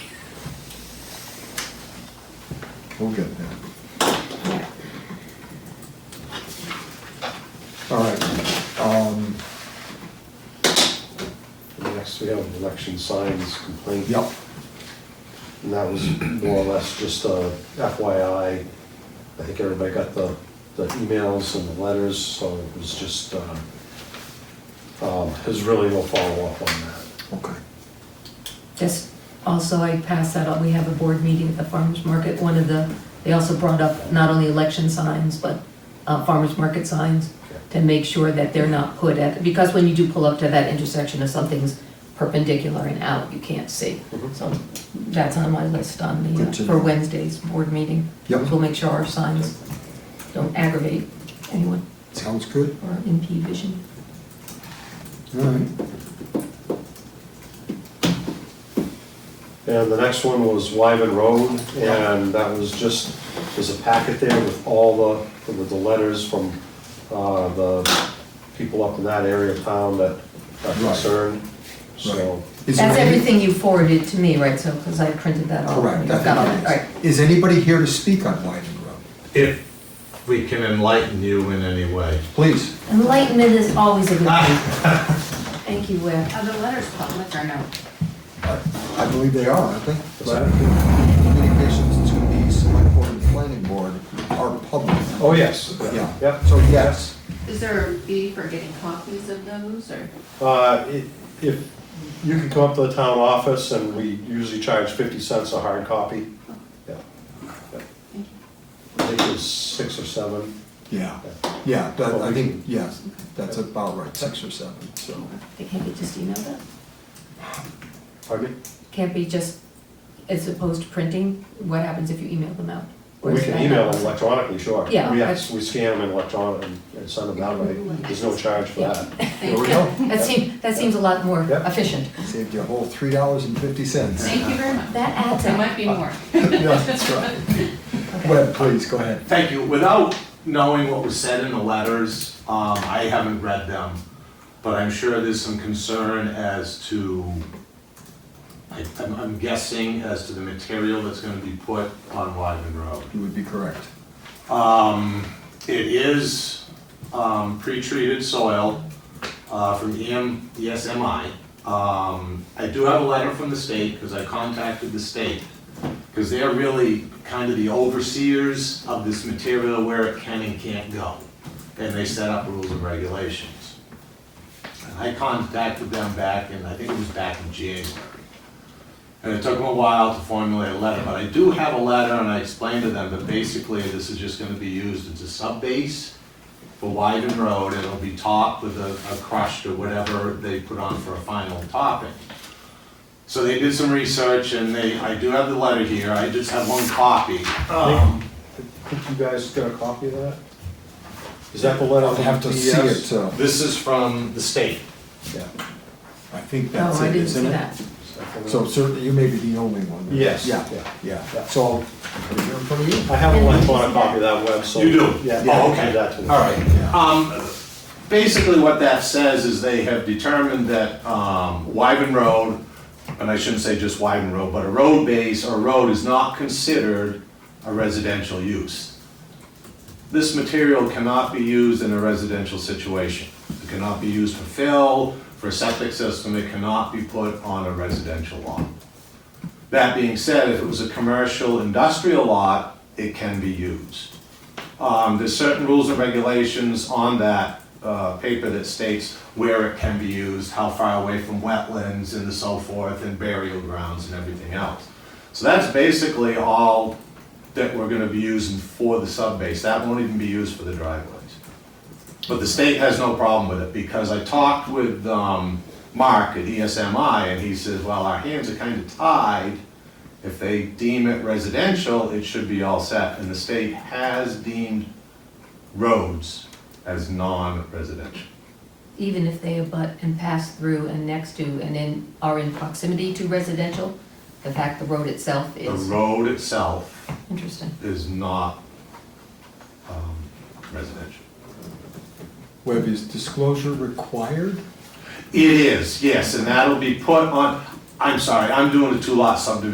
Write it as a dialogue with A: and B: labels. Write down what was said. A: We'll get there. All right. um,
B: Next, we have election signs complaint.
A: Yep,
B: And that was more or less just a FYI. I think everybody got the, the emails and the letters, so it was just, uh, um, there's really no follow-up on that.
A: okay.
C: Just also, I passed that on, we have a board meeting at the farmer's market, one of the, they also brought up not only election signs, but uh, farmer's market signs to make sure that they're not put at, because when you do pull up to that intersection, if something's perpendicular and out, you can't see.
B: Mhm.
C: So that's on my list on the, uh,
A: Mm-hmm. Good to
C: for
A: know.
C: Wednesday's board meeting.
A: Yep.
C: We'll make sure our signs don't aggravate anyone
A: Sounds good.
C: or impede vision.
A: All right.
B: And the next one was Wyven Road, and that was just, there's a packet there with all the, with the letters from uh, the people up in that area of town that are
A: Right.
B: concerned, so.
A: Is
C: That's
A: there any-
C: everything you forwarded to me, right, so, because I printed that off.
A: Correct.
C: You've got all that, all right.
A: Is anybody here to speak on Whiting Road?
D: If we can enlighten you in any way.
A: Please.
C: Enlightenment is always a good thing. Thank you, Webb.
E: Are the letters public or no?
A: I I believe they are, I think.
B: What's
A: But
B: that?
A: Communications to the select board and planning board are public.
B: Oh, yes.
A: Yeah.
B: Yep.
A: So yes,
E: Is there a fee for getting copies of those or?
B: Uh, i- If, you can come up to the town office, and we usually charge 50 cents a hard copy. Yeah. Yeah.
E: Thank
B: I think it was six or seven.
A: yeah, yeah, that- I think, yes, that's about right, six or seven, so.
C: They can't be just emailed up?
B: Pardon me?
C: Can't be just, as opposed to printing, what happens if you email them out? Or
B: We
C: is
B: can
C: that-
B: email them electronically, sure.
C: Yeah,
B: We
C: that's-
B: have- we scan them electronically and send them that way. There's no charge for
C: Yeah.
B: that.
A: There we go.
C: That seems, that seems a lot more
B: Yeah.
C: efficient.
A: Saved you a whole three dollars and fifty cents.
E: Thank you very much.
C: That adds
E: There
C: up.
E: might be more.
A: Yeah, that's right. Webb, please, go ahead.
D: Thank you. Without knowing what was said in the letters, um, I haven't read them, but I'm sure there's some concern as to, I, I'm, I'm guessing as to the material that's gonna be put on Wyven Road.
A: You would be correct.
D: Um, it is, um, pre-treated soil, uh, from EM, ESMI. Um, I do have a letter from the state, because I contacted the state, because they're really kind of the overseers of this material, where it can and can't go. And they set up rules and regulations. And I contacted them back in, I think it was back in January. And it took them a while to formulate a letter, but I do have a letter, and I explained to them that basically this is just gonna be used as a sub-base for Wyven Road, and it'll be topped with a, a crushed or whatever they put on for a final topping. So they did some research, and they, I do have the letter here, I just have one copy. Um,
B: I think you guys got a copy of that? Is that the letter?
A: I'll have to see it, uh,
B: Yes.
A: so.
D: This is from the state.
B: Yeah.
A: I think
C: No,
A: that's
C: Oh, I
A: it,
C: didn't
A: isn't
C: see
A: it?
C: that.
A: So certainly, you may be the only one. that-
B: Yes.
A: Yeah,
B: Yeah.
A: yeah, so, put it here in front of you.
B: I have an electronic copy of that web, so.
D: You do?
B: Yeah.
D: Oh,
B: I'll do
D: okay,
B: that to
D: all
B: you.
D: right. Um, basically what that says is they have determined that, um, Wyven Road, and I shouldn't say just Wyven Road, but a road base or road is not considered a residential use. This material cannot be used in a residential situation. It cannot be used for fill, for a septic system, it cannot be put on a residential lot. That being said, if it was a commercial industrial lot, it can be used. Um, There's certain rules and regulations on that uh, paper that states where it can be used, how far away from wetlands and so forth, and burial grounds and everything else. So that's basically all that we're gonna be using for the subbase. That won't even be used for the driveways. But the state has no problem with it, because I talked with um, Mark at ESMI, and he says, well, our hands are kind of tied. If they deem it residential, it should be all set, and the state has deemed roads as non-residential.
C: Even if they abut and pass through and next to and in, are in proximity to residential, the fact the road itself
D: The
C: is
D: road itself
C: interesting.
D: is not um, residential.
A: Webb, is disclosure required?
D: It is, yes, and that'll be put on, I'm sorry, I'm doing a two-lot subdivision